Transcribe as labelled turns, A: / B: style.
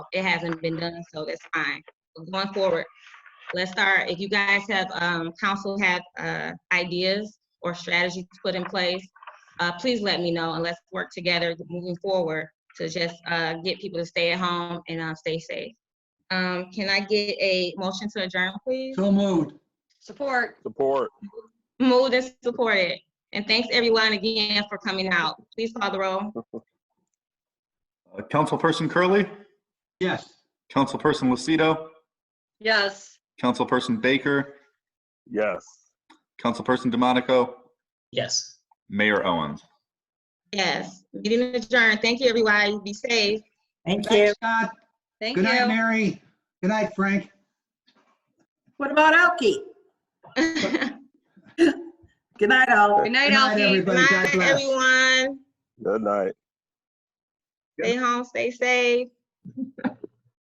A: it hasn't been done, so that's fine. But Going forward, let's start, if you guys have, um, council have, uh, ideas or strategies put in place, uh, please let me know and let's work together moving forward to just, uh, get people to stay at home and, uh, stay safe. Um, can I get a motion to adjourn, please?
B: So moved.
C: Support.
D: Support.
A: Moved and supported. And thanks everyone again for coming out. Please call the roll.
E: Uh, Councilperson Curley,
B: Yes.
E: Councilperson Lucido,
C: Yes.
E: Councilperson Baker,
D: Yes.
E: Councilperson DeMonico,
F: Yes.
E: Mayor Owens.
A: Yes, meeting adjourned. Thank you, everybody. Be safe.
G: Thank you.
B: Thanks, Scott.
C: Thank
B: Good night,
C: you.
B: Mary. Good night, Frank.
G: What about Elkie?
A: Good
G: Good night, all.
C: Good night,
B: Good night,
C: Alfie.
B: everybody. God
A: night,
B: bless.
A: everyone.
D: Good night.
A: Stay home, stay safe.